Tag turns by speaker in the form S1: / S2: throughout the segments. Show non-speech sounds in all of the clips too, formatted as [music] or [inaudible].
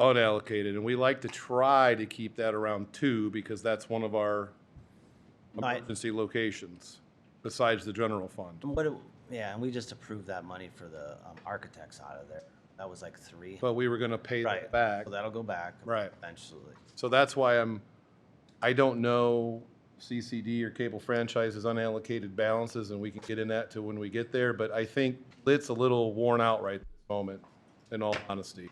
S1: unallocated, and we like to try to keep that around two, because that's one of our
S2: Right.
S1: emergency locations, besides the general fund.
S2: And What, it- yeah, and we just approved that money for the um, architects out of there. That was like three.
S1: But we were gonna pay
S2: Right.
S1: that back.
S2: So that'll go back.
S1: Right.
S2: Eventually.
S1: So that's why I'm, I don't know CCD or cable franchises unallocated balances, and we can get in that to when we get there, but I think it's a little worn out right at the moment, in all honesty.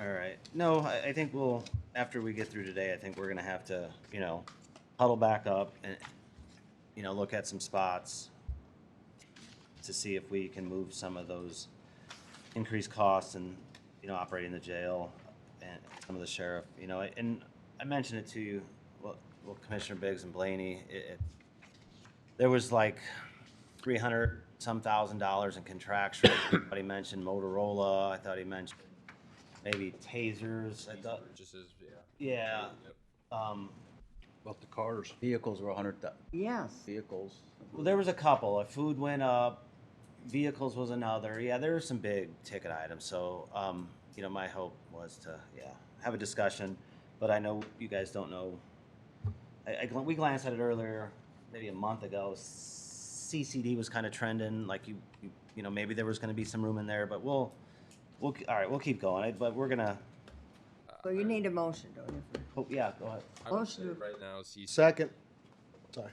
S2: All right. No, I, I think we'll, after we get through today, I think we're gonna have to, you know, huddle back up and, you know, look at some spots to see if we can move some of those increased costs and, you know, operating the jail and some of the sheriff, you know, and I mentioned it to you, well, well, Commissioner Biggs and Blaney, it, it, there was like three hundred some thousand dollars in contractual. [coughs] But he mentioned Motorola. I thought he mentioned maybe tasers. I thought,
S3: purchases, yeah.
S2: yeah. Um,
S3: About the cars.
S4: Vehicles were a hundred thou-
S5: Yes.
S4: vehicles.
S2: well, there was a couple. Uh, Food went up. Vehicles was another. Yeah, there were some big ticket items. So, um, you know, my hope was to yeah have a discussion, but I know you guys don't know. I, I gl- we glanced at it earlier, maybe a month ago. CCD was kind of trending, like you, you, you know, maybe there was going to be some room in there, but we'll, we'll, all right, we'll keep going. I, but we're gonna,
S5: So you need a motion, don't you?
S2: oh, yeah, go ahead.
S3: I would say
S5: Motion.
S3: right now, CC.
S6: Second. Sorry.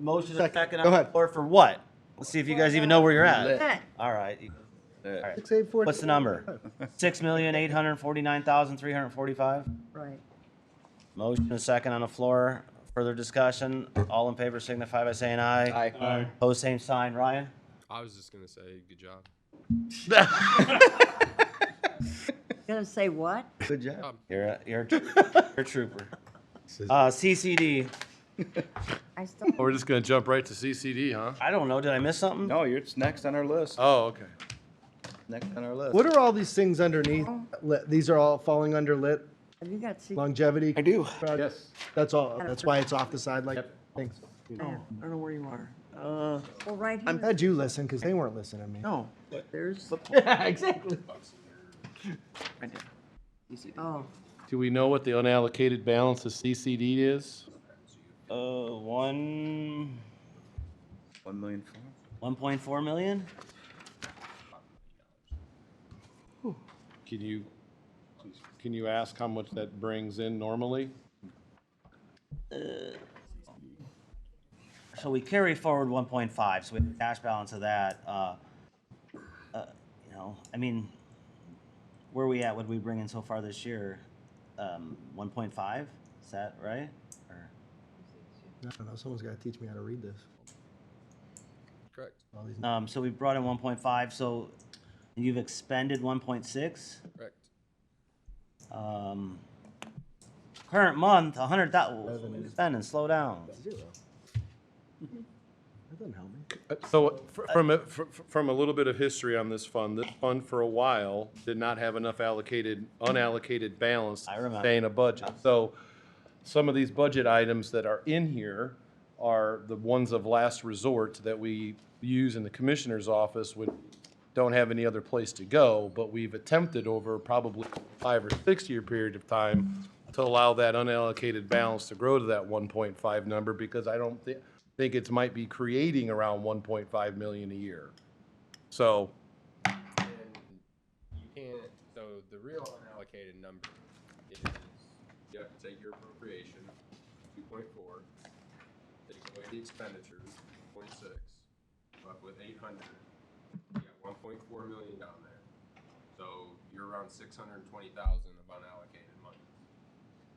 S2: Motion and
S6: Second.
S2: second
S6: Go
S2: on the
S6: ahead.
S2: floor for what? Let's see if you guys even know where you're at.
S5: Hey,
S2: All right. All right.
S6: Six, eight, four.
S2: What's the number? Six million, eight hundred and forty-nine thousand, three hundred and forty-five?
S5: Right.
S2: Motion and second on the floor. Further discussion? All in favor signify by saying aye.
S4: Aye.
S2: Pose same sign. Ryan?
S3: I was just gonna say, good job.
S5: Gonna say what?
S6: Good job.
S2: You're, a- you're, a tr- you're a trooper. Uh, CCD,
S5: I still,
S1: We're just gonna jump right to CCD, huh?
S2: I don't know, did I miss something?
S4: No, you're, it's next on our list,
S1: Oh, okay.
S4: next on our list.
S6: What are all these things underneath? Lit- These are all falling under lit
S5: have you got? secret-
S6: longevity. I do.
S1: Yes.
S6: That's all. That's why it's off the side like, thanks.
S7: I don't know where you are. Uh,
S5: Well, right
S6: I'm
S5: here,
S6: glad you listened because they weren't listening to me.
S7: no.
S5: [laughs] there's,
S7: Yeah, exactly. Right there. You see that?
S5: oh,
S1: Do we know what the unallocated balance of CCD is?
S2: Uh, one,
S4: One million four.
S2: one point four million?
S1: Can you, can you ask how much that brings in normally?
S2: So we carry forward one point five, so we have a cash balance of that, uh, uh, you know, I mean, where are we at, what did we bring in so far this year? Um, one point five, is that right? Or,
S6: I don't know. Someone's got to teach me how to read this.
S3: Correct,
S6: All these.
S2: um, so we brought in one point five, so you've expended one point six?
S3: correct.
S2: Um, current month, a hundred thousand, spending, slow down.
S6: That doesn't help me.
S1: Uh, So fr- from, a- fr- fr- from a little bit of history on this fund, this fund for a while did not have enough allocated, unallocated balance
S2: I
S1: to
S2: remember.
S1: sustain a budget. So some of these budget items that are in here are the ones of last resort that we use in the commissioner's office when don't have any other place to go, but we've attempted over probably five or six-year period of time to allow that unallocated balance to grow to that 1.5 number, because I don't thi- think it's might be creating around 1.5 million a year. So,
S3: You can't, so the real unallocated number is, you have to take your appropriation, two point four, take away the expenditures, point six, up with eight hundred, you got one point four million down there. So you're around six hundred and twenty thousand of unallocated money.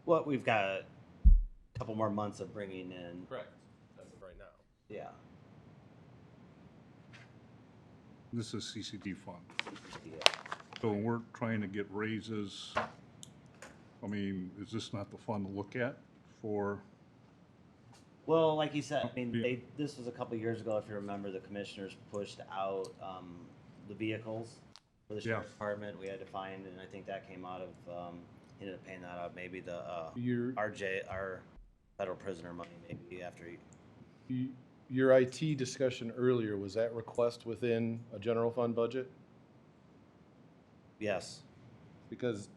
S2: What, we've got a couple more months of bringing in,
S3: Correct, as of right now.
S2: yeah.
S8: This is CCD fund.
S2: yeah.
S8: So when we're trying to get raises, I mean, is this not the fund to look at for?
S2: Well, like you said, I mean,
S8: Yeah.
S2: they, this was a couple of years ago, if you remember, the commissioners pushed out, um, the vehicles for the
S8: Yeah.
S2: sheriff's department, we had to find, and I think that came out of, um, you know, paying that out, maybe the, uh,
S1: Your-
S2: RJ, our federal prisoner money, maybe after, he-
S1: y- your IT discussion earlier, was that request within a general fund budget?
S2: yes.
S1: Because